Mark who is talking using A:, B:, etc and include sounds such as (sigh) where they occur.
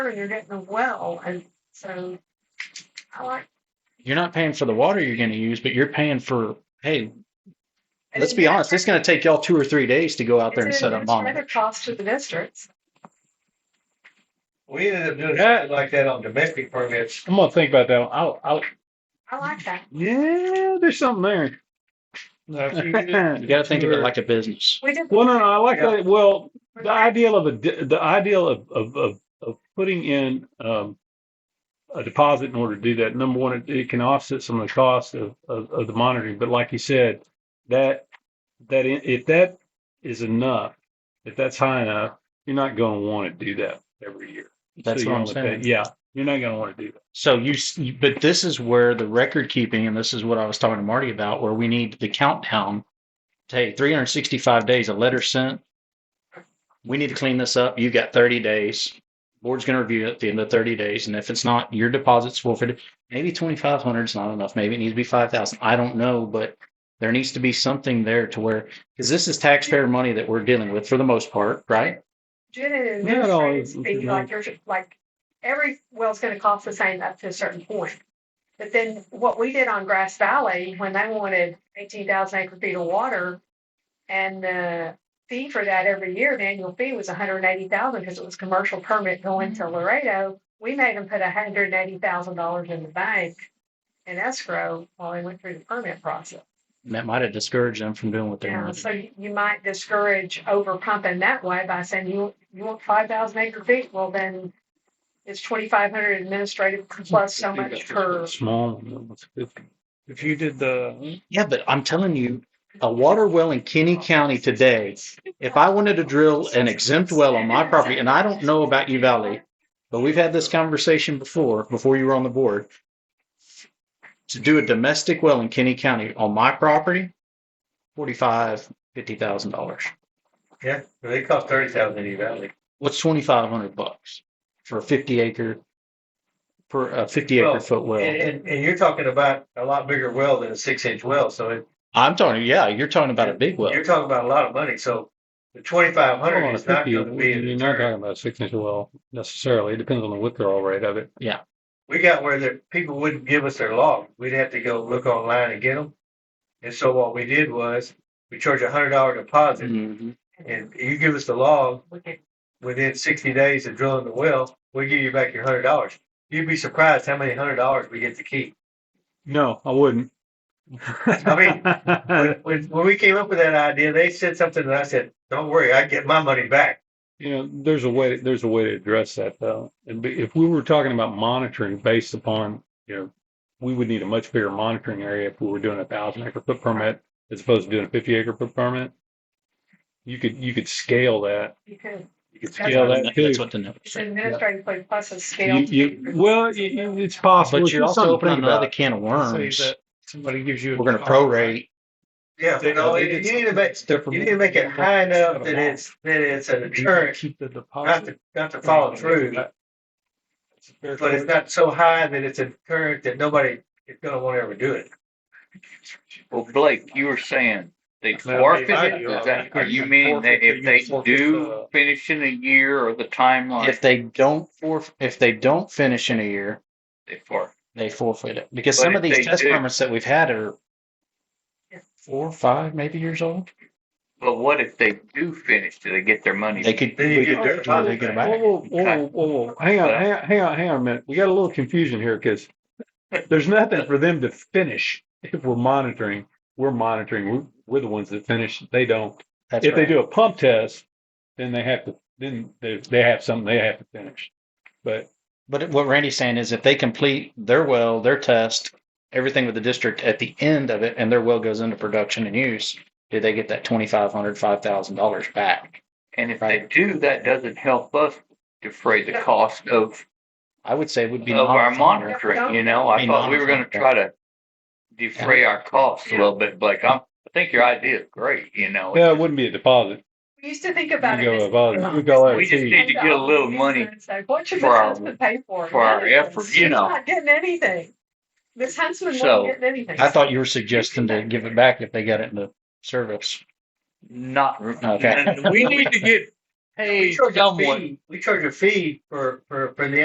A: and you're getting a well, and so I like.
B: You're not paying for the water you're going to use, but you're paying for, hey,
A: and
B: let's
A: then
B: be
A: that's
B: honest, it's going to take y'all two or three days to go out there and
A: It's
B: set up monitors.
A: Another cost to the districts.
C: We ended up doing that like that on domestic permits.
D: I'm gonna think about that. one. I'll, I'll,
A: I like that.
D: yeah, there's something there.
B: (laughs) You got to think of it like a business.
A: We did.
D: Well, no, no, I like
C: Yeah.
D: that. Well, the ideal of a, di- the ideal of, of, of, of putting in, um, a deposit in order to do that. Number one, it, it can offset some of the cost of, of, of the monitoring. But like you said, that, that, i- if that is enough, if that's high enough, you're not gonna want to do that every year.
B: That's
D: So
B: what
D: you're
B: I'm
D: gonna
B: saying.
D: pay- Yeah, you're not gonna want to do that.
B: So you, s- you- but this is where the record keeping, and this is what I was talking to Marty about, where we need the countdown. Hey, 365 days, a letter sent. We need to clean this up. You've got 30 days. Board's going to review it at the end of 30 days. And if it's not, your deposit's forfeited. Maybe 2,500 is not enough. Maybe it needs to be 5,000. I don't know, but there needs to be something there to where, because this is taxpayer money that we're dealing with for the most part, right?
A: Did an
D: Not all
A: administrative
D: is-
A: fee, like you're, like, every well's gonna cost the same up to a certain point. But then what we did on Grass Valley, when they wanted eighteen thousand acre feet of water, and the fee for that every year, the annual fee was $180,000 because it was commercial permit going to Laredo. We made them put hundred and eighty thousand dollars in the bank in escrow while they went through the permit process.
B: And that might have discouraged them from doing what they
A: Yeah,
B: wanted. to
A: so you you might discourage over pumping that way by saying you, you want five thousand acre feet, well then it's twenty-five hundred administrative plus so much per.
D: Small. one, that's good.
C: If you did the.
B: Yeah, but I'm telling you, a water well in Kenny County today, if I wanted to drill an exempt well on my property, and I don't know about you Valley, but we've had this conversation before, before you were on the board. To do a domestic well in Kenny County on my property, forty-five, fifty thousand dollars.
C: Yeah, they cost thirty thousand in Valley.
B: What's twenty-five hundred bucks for a fifty acre, per, a fifty
C: Well,
B: acre foot
C: And,
B: well?
C: and, and you're talking about a lot bigger well than a six inch well, so it,
B: I'm talking, yeah, you're talking about a big well.
C: you're talking about a lot of money, so the twenty five
D: Hold
C: hundred
D: on, a
C: is not
D: 50,
C: gonna be. a
D: You're not
C: deterrent.
D: talking about a six inch well necessarily. It depends on the withdrawal rate of it.
C: we got where the people wouldn't give us their log. We'd have to go look online and get them. And so what we did was we charged a hundred dollar deposit,
B: Mhm.
C: and you give us the log
A: we could-
C: within sixty days of drilling the well, we give you back your hundred dollars. You'd be surprised how many hundred dollars we get to keep.
D: No, I wouldn't.
C: I mean,
B: (laughs)
C: when, when, when we came up with that idea, they said something, and I said, "Don't worry, I get my money back."
D: you know, there's a way. There's a way to address that though. And be- if we were talking about monitoring based upon, you know, we would need a much bigger monitoring area if we were doing a thousand acre foot permit as opposed to doing a fifty acre foot permit. You could you could scale that.
A: You could,
D: You could
A: That's
D: scale
A: what-
D: that too.
B: That's what the number.
A: it's administrative plus a scale.
D: You, you, well, you- you- it's possible.
B: But
D: It's
B: you're
D: just
B: also
D: something to
B: opening
D: think about.
B: another can of worms.
E: somebody gives you.
B: We're going to prorate.
C: Yeah, you know, you you need to make you need to make it high enough that it's that it's an insurance,
D: Keep the
C: not
D: deposit.
C: to not to follow through. but it's not so high that it's a current that nobody is going to want to ever do it.
F: Well, Blake, you were saying they
D: Well,
F: forfeit
C: they-
F: it? Is that, are you mean
D: Forfeit,
F: that if they
D: you forfeit
F: do
D: the-
F: finish in a year or the timeline,
B: If they don't for, if they don't finish in a year,
F: they forfeit?
B: they forfeit it because
F: But
B: some of
F: if
B: these
F: they
B: test
F: do-
B: permits that we've had are
A: Yeah.
B: four, five, maybe years old.
F: But what if they do finish? Do they get their money?
B: They could,
C: Then you
B: we
C: get
B: could
C: their
B: do it, they get it
D: Whoa,
B: back.
D: whoa, whoa, whoa, whoa. Hang on, hang on, hang on, hang on a minute. We got a little confusion here because there's nothing for them to finish if we're monitoring. We're monitoring. We're, we're the ones that finish. They don't.
B: That's
D: if
B: right.
D: they do a pump test, then they have to. Then they, they have something they have to finish. But
B: But what Randy's saying is if they complete their well, their test, everything with the district at the end of it, and their well goes into production and use, do they get that $2,500, $5,000 back?
F: And if they
B: Right.
F: do, that doesn't help us defray the
A: Yeah.
F: cost of,
B: I would say would be.
F: of our
B: non-refundable.
F: monitoring, you know? I
B: Be
F: thought we were gonna
B: non-refundable.
F: try to defray our costs a
A: Yeah.
F: little bit, Blake. I'm, I think your idea is great, you know?
D: yeah, it wouldn't be a deposit.
A: We used to think
D: We
A: about it.
D: go
A: as-
D: a volume. We go
F: We just
D: RT.
F: need to get a little money
A: It's like, What should
F: for
A: Miss
F: our-
A: Huntsman pay for?
F: for our
A: Nothing.
F: effort, you know.
A: She's Not getting anything. Miss Huntsman
F: So,
A: wasn't getting anything.
B: I thought you were suggesting to give it back if they got it in the service.
F: Not, (laughs)
B: Okay.
F: we need to get
C: (laughs) We
D: paid
C: charge a
D: someone.
C: fee, we charge a fee for, for, for the